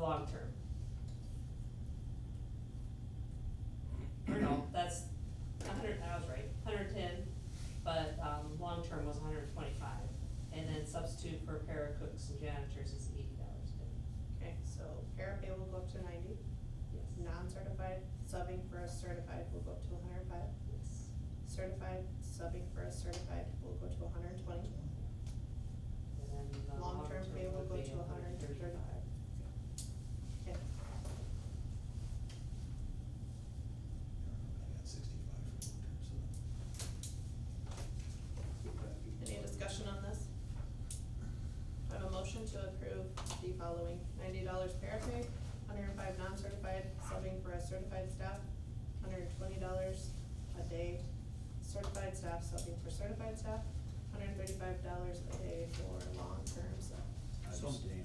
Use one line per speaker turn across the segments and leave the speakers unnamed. long term. Or no, that's a hundred, I was right, hundred ten, but, um, long term was hundred and twenty-five. And then substitute for para cooks and janitors is eighty dollars a day,
Okay, so parapay will go up to ninety,
yes,
non-certified subbing for a certified will go up to hundred and five,
yes.
certified subbing for a certified will go to hundred and twenty,
And then the
long-term pay will go
would be
to hundred and thirty-five. Okay,
I got sixty-five for long term, so.
any discussion on this? I have a motion to approve the following, ninety dollars parapay, hundred and five non-certified subbing for a certified staff, hundred and twenty dollars a day, certified staff subbing for certified staff, hundred and thirty-five dollars a day for long-term sub.
So-
Abstain.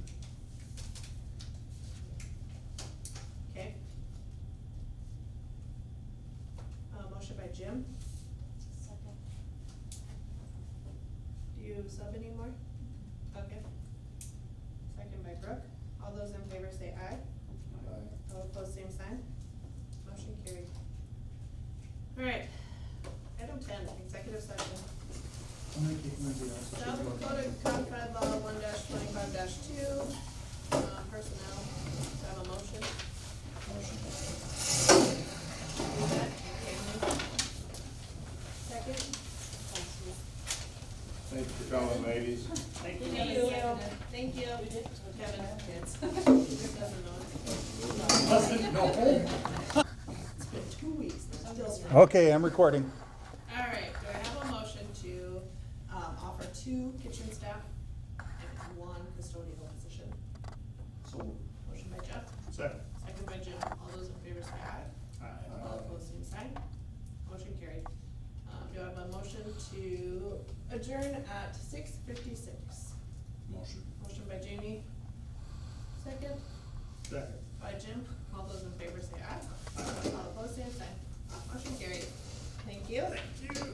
Okay. Uh, motion by Jim,
Second.
do you sub anymore? Okay. Second by Brooke, all those in favor say aye,
Aye.
all opposed same sign, motion carried. Alright, item ten, executive session,
I'll make it Monday also.
South Dakota Codified Law one twenty-five two, uh, personnel, do I have a motion?
Motion.
Do that, okay. Second?
Thank you for coming, ladies.
Thank
you.
Thank you. Kevin. Kids. doesn't know.
Doesn't know.
It's been two weeks. and it's
Oh,
still-
Okay, I'm recording.
All right, do I have a motion to, um, offer two kitchen staff and one custodial position?
So.
Motion by Jeff,
Second.
second by Jim. All those in favor say aye. All
Uh,
opposed, same sign. Motion carried. Um, do I have a motion to adjourn at six fifty-six?
Motion.
Motion by Jamie. Second.
Second.
By Jim, all those in favor say aye. All opposed, same sign. Motion carried. Thank you.